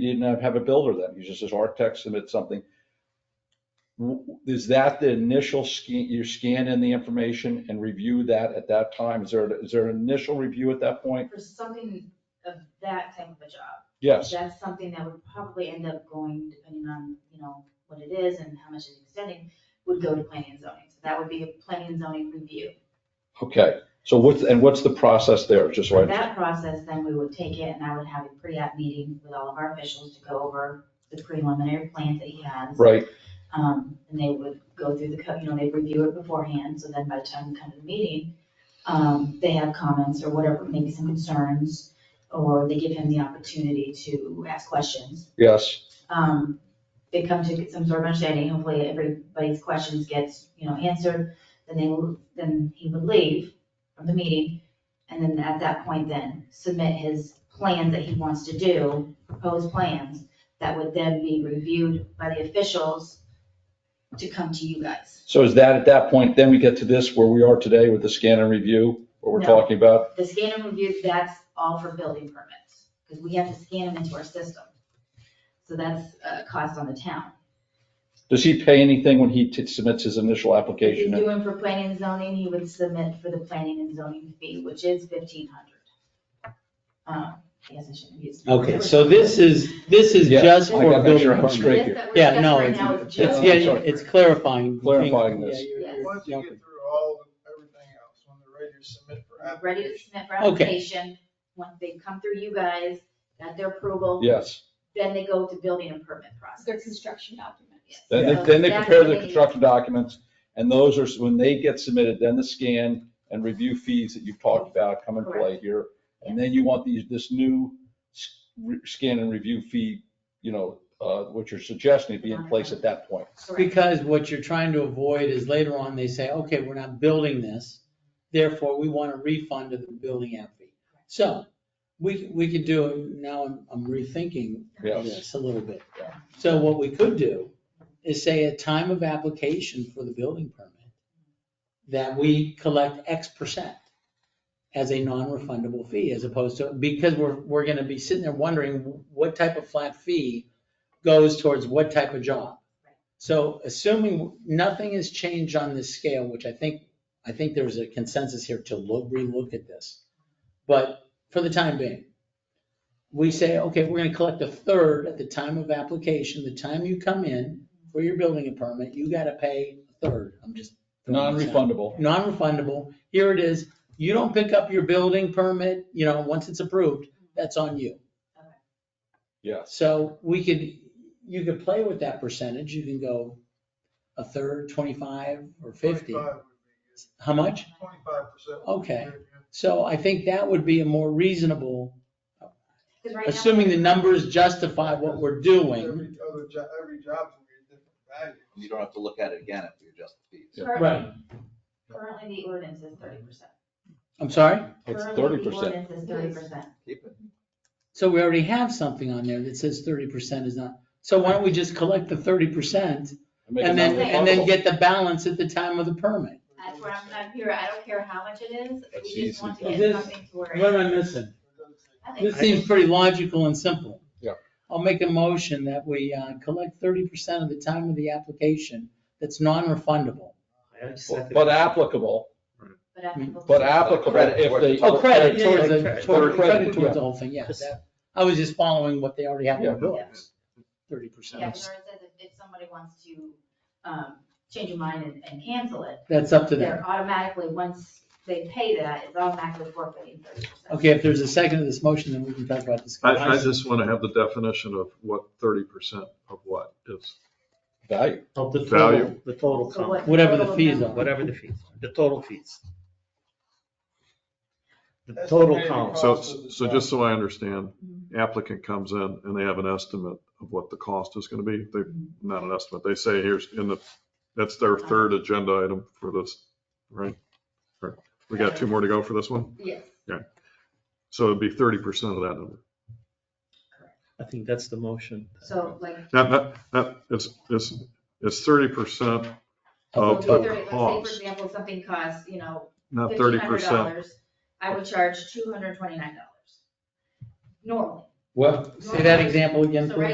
He didn't have- have a builder then, he's just his architect submits something. W- Is that the initial scan, you scan in the information and review that at that time? Is there, is there an initial review at that point? For something of that type of a job, Yes, that's something that would probably end up going, depending on, you know, what it is and how much it's extending, would go to planning and zoning. So that would be a planning and zoning review. okay, so what's, and what's the process there, just so I For understand? that process, then we would take it and I would have a pre-app meeting with all of our officials to go over the preliminary plans that he has. Right, Um, and they would go through the, co- you know, they'd review it beforehand, so then by the time we come to the meeting, um, they have comments or whatever, maybe some concerns, or they give him the opportunity to ask questions. yes, Um, they come to get some sort of understanding, hopefully everybody's questions gets, you know, answered, then they, will- then he would leave from the meeting, and then at that point then, submit his plans that he wants to do, proposed plans, that would then be reviewed by the officials to come to you guys. so is that at that point, then we get to this where we are today with the scan and review, what we're No. talking about? The scan and review, that's all for building permits, because we have to scan them into our system. So that's a cost on the town. Does he pay anything when he t- submits his initial If you application? do him for planning and zoning, he would submit for the planning and zoning fee, which is fifteen hundred. Um, I guess I shouldn't use. Okay, so this is, this is Yeah, just I for gotta make building sure I'm permits. straight. This that we're Yeah, discussing no, right it's- now is It's just- getting, it's clarifying. things. Clarifying this. Yeah, you're- Yes. you're Once you jumping. get through all, the- everything else, when they're ready to submit for Ready to application. submit for Okay. application, once they come through you guys, got their approval, Yes, then they go to building and permit process. their construction document. Yes. then they, So then they that's compare when the they- construction documents, and those are, when they get submitted, then the scan and review fees that you've talked about come in play here. And then you want these, this new s- re- scan and review fee, you know, uh, what you're suggesting to be in place at that point. Correct. Because what you're trying to avoid is later on, they say, okay, we're not building this, therefore we want a refund of the building app fee. So we, we could do, now I'm- I'm rethinking Yes. this a little bit. Yeah. So what we could do is say at time of application for the building permit, that we collect X percent as a non-refundable fee as opposed to, because we're, we're gonna be sitting there wondering what type of flat fee goes towards what type of job. So assuming nothing has changed on this scale, which I think, I think there's a consensus here to look, relook at this. But for the time being, we say, okay, we're gonna collect a third at the time of application, the time you come in for your building permit, you gotta pay a third. I'm just. throwing this out Non-refundable. non-refundable, here it is, you don't pick up your building permit, you know, once it's approved, that's on you. Yes. So we could, you could play with that percentage, you can go a third, twenty-five or fifty. How much? Twenty-five percent. Okay. So I think that would be a more reasonable, 'Cause right now- assuming the numbers justify what we're doing. Every other job, every job's gonna be a different value. You don't have to look at it again if you adjust the fees. Current- Right. Currently, the ordinance is thirty percent. I'm sorry? It's Currently, the 30%. ordinance is thirty percent. Keep it. So we already have something on there that says thirty percent is not, so why don't we just collect the thirty percent Make it and then, and then non-refundable. get the balance at the time of the permit? That's where I'm, I'm here, I don't care how much it is, That's we just want to easy. get This- something to where. What am I missing? I think This seems pretty logical and simple. Yeah. I'll make a motion that we uh, collect 30% of the time of the application that's non-refundable. But applicable, But applicable. but applicable if they. Oh, credit towards Yeah, the, toward- Credit, credit yeah. towards the whole thing, yeah. that- I was just following what they already have in their Yeah. books. Yeah, because 30%. it says if, if somebody wants to, um, change your mind and, and cancel it, That's up to them. they're automatically, once they pay that, it's automatically forfeiting thirty percent. Okay, if there's a second to this motion, then we can talk about this. I, I just want to have the definition of what thirty percent of what is. Value, Of the Value. total, the total So what- comment, Whatever the total fees amount- are. whatever the fees, the total fees. The total count. So, Cost of the so job. just so I understand, Mhm. applicant comes in and they have an estimate of what the cost is going to be. They, not an estimate, they say here's in the, that's their third agenda item for this, right? Right. We got two more to go for this one. Yes, So it'd be thirty percent of that number. I think that's the motion. so like, Not, not, not, it's, it's, it's thirty percent, so Of if the they're- let's say, for Oh, cost. example, something costs, you know, not thirty fifteen hundred percent. dollars, I would charge two hundred and twenty-nine dollars. Normally, What? Say that example again, So please.